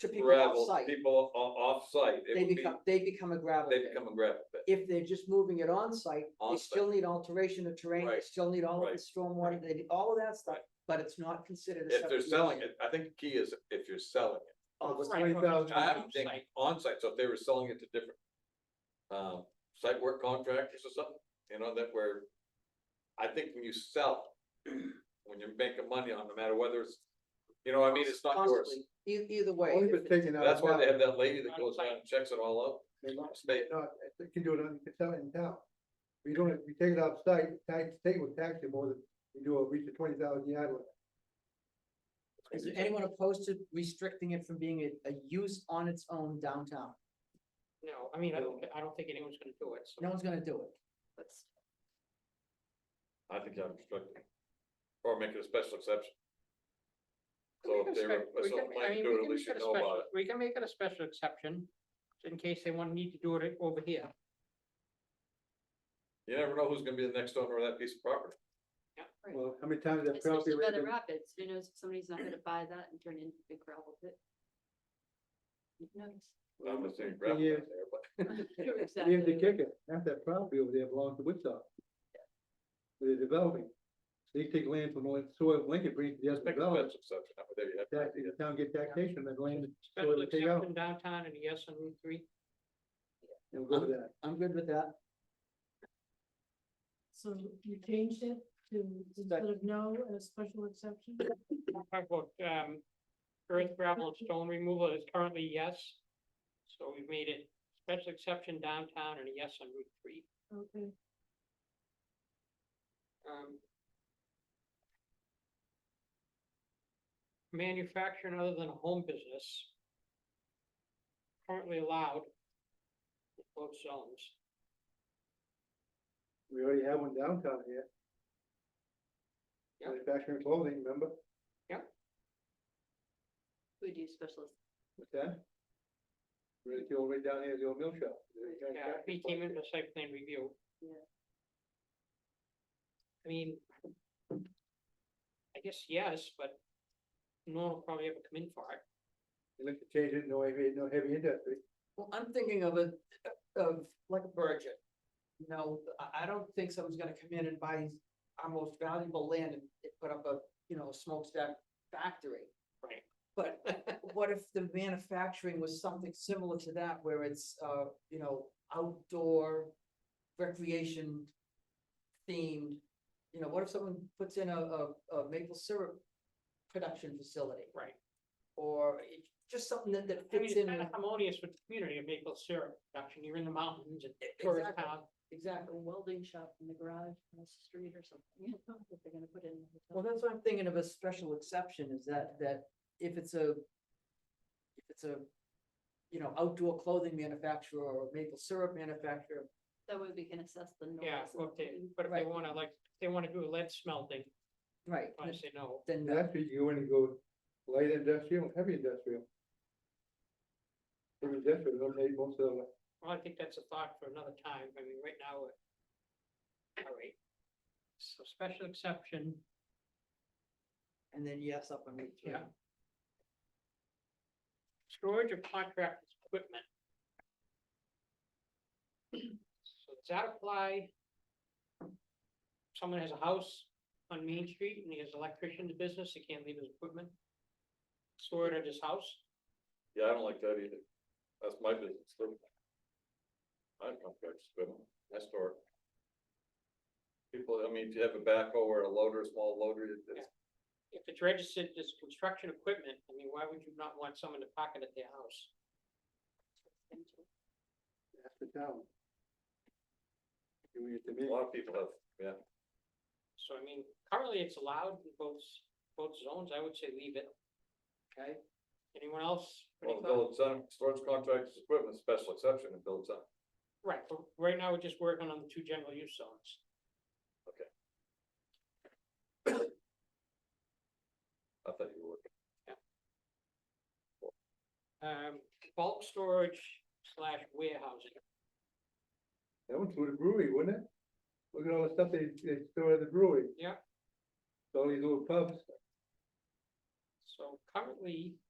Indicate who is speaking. Speaker 1: to people
Speaker 2: gravel,
Speaker 1: off-site.
Speaker 2: people o- off-site, it
Speaker 1: They
Speaker 2: would be,
Speaker 1: become, they become a gravel
Speaker 2: they
Speaker 1: pit.
Speaker 2: become a gravel pit.
Speaker 1: If they're just moving it on-site, they
Speaker 2: On-site.
Speaker 1: still need alteration of terrain, they
Speaker 2: Right,
Speaker 1: still need all of
Speaker 2: right,
Speaker 1: the stormwater, they need all of that stuff,
Speaker 2: Right.
Speaker 1: but it's not considered a
Speaker 2: If they're
Speaker 1: separate
Speaker 2: selling
Speaker 1: dwelling.
Speaker 2: it, I think the key is if you're selling it.
Speaker 1: Oh,
Speaker 3: was
Speaker 1: right.
Speaker 3: twenty thousand.
Speaker 2: I haven't think on-site, so if they were selling it to different. Um, site work contractors or something, you know, that were. I think when you sell, when you're making money on, no matter whether it's, you know, I mean, it's not yours.
Speaker 1: Constantly, e- either way.
Speaker 3: Only
Speaker 1: if
Speaker 3: been
Speaker 1: it's-
Speaker 3: taken out.
Speaker 2: That's
Speaker 3: of
Speaker 2: why they
Speaker 3: that.
Speaker 2: have that lady that goes around and checks it all
Speaker 3: They
Speaker 2: out.
Speaker 3: lost-
Speaker 2: They-
Speaker 3: No, they can do it on, you can sell it in town. We don't, we take it outside, tax, state would tax you more than we do a reach of twenty thousand yard limit.
Speaker 1: Is there anyone opposed to restricting it from being a, a use on its own downtown?
Speaker 4: No, I mean, I don't, I don't think anyone's gonna do it, so.
Speaker 1: No one's gonna do it.
Speaker 4: let's-
Speaker 2: I think I'm restricted. Or make it a special exception.
Speaker 4: we
Speaker 2: So
Speaker 4: can
Speaker 2: if they were,
Speaker 4: spec- we
Speaker 2: so
Speaker 4: can- I
Speaker 2: planning to do it,
Speaker 4: mean, we can
Speaker 2: at least
Speaker 4: make
Speaker 2: you
Speaker 4: it a
Speaker 2: know about
Speaker 4: special-
Speaker 2: it.
Speaker 4: We can make it a special exception, in case they want, need to do it over here.
Speaker 2: You never know who's gonna be the next owner of that piece of property.
Speaker 5: Right.
Speaker 3: Well, how many times that property?
Speaker 5: Especially by the
Speaker 3: been-
Speaker 5: rapids, who knows if somebody's not gonna buy that and turn it into a big gravel pit? Who knows?
Speaker 2: I'm just saying,
Speaker 3: Thing
Speaker 2: grab it out
Speaker 3: is-
Speaker 2: there, but
Speaker 3: Here's the
Speaker 5: Exactly.
Speaker 3: kicker, half that property over there belongs to Woodstock. They're developing. They take land from the land- soil of Lincoln, bring it to the
Speaker 2: Just make a
Speaker 3: development.
Speaker 2: special exception, Now, there you have
Speaker 3: Tax,
Speaker 2: it.
Speaker 3: the town get taxation, on that land, Well,
Speaker 4: Special
Speaker 3: they take out-
Speaker 4: exception downtown and yes on Route three.
Speaker 3: and we'll go to that.
Speaker 1: I'm good with that.
Speaker 6: So you changed it to instead of no, a special exception?
Speaker 4: Talk about, um, earth gravel and stone removal is currently yes. So we've made it special exception downtown and a yes on Route three.
Speaker 6: Okay,
Speaker 4: Um. Manufacturing other than a home business. Currently allowed. in Both zones.
Speaker 3: We already have one downtown here.
Speaker 4: Yeah.
Speaker 3: Manufacturing clothing, remember?
Speaker 5: We do specialist,
Speaker 3: What's that? Right, the old way down here, the old mill shop.
Speaker 4: Yeah, if he came in for site plan review.
Speaker 5: Yeah.
Speaker 4: I mean. I guess yes, but no one will probably ever come in for it.
Speaker 3: You look to change it, no heavy, no heavy industry.
Speaker 1: Well, I'm thinking of a, of like a virgin. You know, I, I don't think someone's gonna come in and buy our most valuable land and and put up a, you know, smokestack factory.
Speaker 4: Right.
Speaker 1: But what if the manufacturing was something similar to that where it's, uh, you know, outdoor recreation themed? You know, what if someone puts in a, a, a maple syrup production facility?
Speaker 4: Right.
Speaker 1: Or it- just something that, that
Speaker 4: I mean,
Speaker 1: fits
Speaker 4: it's
Speaker 1: in.
Speaker 4: kind of
Speaker 1: with-
Speaker 4: harmonious with the community of Maple Syrup production. You're in the mountains and tourist
Speaker 1: Exactly.
Speaker 4: town.
Speaker 1: Exactly.
Speaker 5: a welding shop in the garage across the street or something, if they're gonna put it in. the hotel.
Speaker 1: Well, that's what I'm thinking of a special exception is that, that if it's a, if it's a, you know, outdoor clothing manufacturer or maple syrup manufacturer,
Speaker 5: That way we can assess the noise.
Speaker 4: Yeah,
Speaker 5: and
Speaker 4: or if they,
Speaker 5: everything.
Speaker 4: but if they
Speaker 1: Right.
Speaker 4: wanna like, if they wanna do lead smelting,
Speaker 1: right,
Speaker 4: I say no.
Speaker 1: then
Speaker 3: And That's where you go in and go light industrial, and heavy industrial. Heavy industrial, eliminate most of the,
Speaker 4: Well, I think that's a thought for another time. I mean, right now. we're- All right. So special exception.
Speaker 1: and then yes, up on Route three.
Speaker 4: Yeah. storage of contract equipment. So does that apply? Someone has a house on Main Street and he has an electrician's business, he can't leave his equipment. Store it at his house,
Speaker 2: Yeah, I don't like that either. That's my business. too. I don't come back to spin them. I store. it. People, I mean, if you have a backhoe or a loader, a small loader, it- it's,
Speaker 4: if it's registered as construction equipment, I mean, why would you not want someone to park it at their house?
Speaker 3: that's the town. Doing it to
Speaker 2: a
Speaker 3: me.
Speaker 2: lot of people have, yeah.
Speaker 4: So I mean, currently it's allowed in both, both zones, I would say leave it. Okay, anyone else? Any
Speaker 2: Well, the village
Speaker 4: thoughts?
Speaker 2: center, storage contractors, equipment, special exception in village center.
Speaker 4: Right, but right now we're just working on the two general use zones.
Speaker 2: I thought you were.
Speaker 4: um, bulk storage slash warehousing.
Speaker 3: That one's for the brewery, wouldn't it? Look at all the stuff they, they store at the brewery.
Speaker 4: Yeah.
Speaker 3: All these little pubs,
Speaker 4: So currently,